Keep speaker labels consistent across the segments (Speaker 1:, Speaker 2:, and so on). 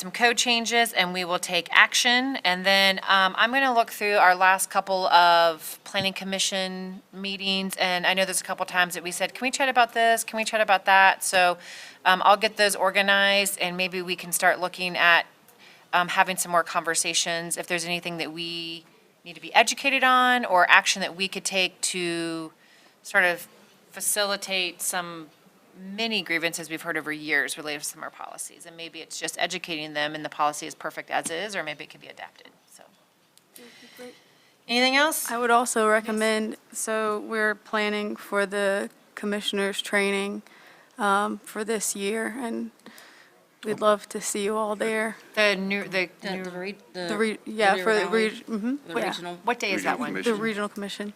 Speaker 1: some code changes, and we will take action. And then um, I'm going to look through our last couple of planning commission meetings, and I know there's a couple times that we said, can we chat about this? Can we chat about that? So um, I'll get those organized, and maybe we can start looking at um, having some more conversations, if there's anything that we need to be educated on, or action that we could take to sort of facilitate some many grievances we've heard over years related to some of our policies. And maybe it's just educating them and the policy is perfect as is, or maybe it can be adapted, so. Anything else?
Speaker 2: I would also recommend, so we're planning for the commissioners' training um, for this year, and we'd love to see you all there.
Speaker 1: The new, the,
Speaker 3: The-
Speaker 1: new-
Speaker 3: the re-
Speaker 2: The, re- yeah, for the, reg- mhm,
Speaker 3: the
Speaker 2: yeah,
Speaker 3: regional.
Speaker 1: what day is that one?
Speaker 2: the regional commission.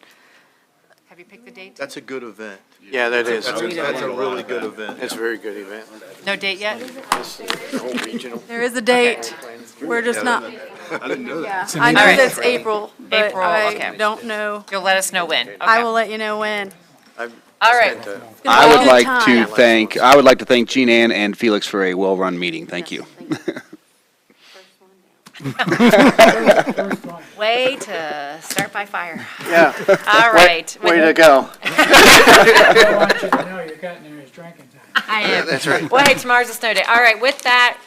Speaker 1: Have you picked the date?
Speaker 4: That's a good event.
Speaker 5: Yeah, that is.
Speaker 4: That's a, that's a really good event.
Speaker 5: It's a very good event.
Speaker 1: No date yet?
Speaker 5: The whole regional.
Speaker 2: There is a date, we're just not,
Speaker 4: I didn't know
Speaker 2: yeah, I know
Speaker 1: Alright.
Speaker 2: that's April, but
Speaker 1: April,
Speaker 2: I
Speaker 1: okay.
Speaker 2: don't know.
Speaker 1: You'll let us know when.
Speaker 2: I
Speaker 1: Okay.
Speaker 2: will let you know when.
Speaker 1: All right.
Speaker 6: I would like
Speaker 2: Good
Speaker 6: to
Speaker 2: time.
Speaker 6: thank, I would like to thank Jean Ann and Felix for a well-run meeting. Thank you.
Speaker 1: Way to start by fire.
Speaker 5: Yeah,
Speaker 1: All right.
Speaker 5: way to go.
Speaker 7: I want you to know you're getting there, it's drinking time.
Speaker 1: I am. That's right. Well, hey, tomorrow's a snow day. All right, with that,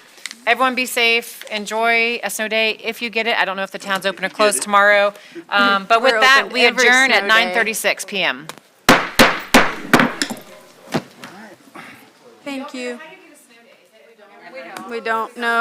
Speaker 1: everyone be safe, enjoy a snow day if you get it. I don't know if the town's open or closed tomorrow. Um, But with
Speaker 2: We're
Speaker 1: that,
Speaker 2: open
Speaker 1: we
Speaker 2: every
Speaker 1: adjourn at
Speaker 2: snow day.
Speaker 1: 9:36 PM.
Speaker 2: Thank you. We don't know.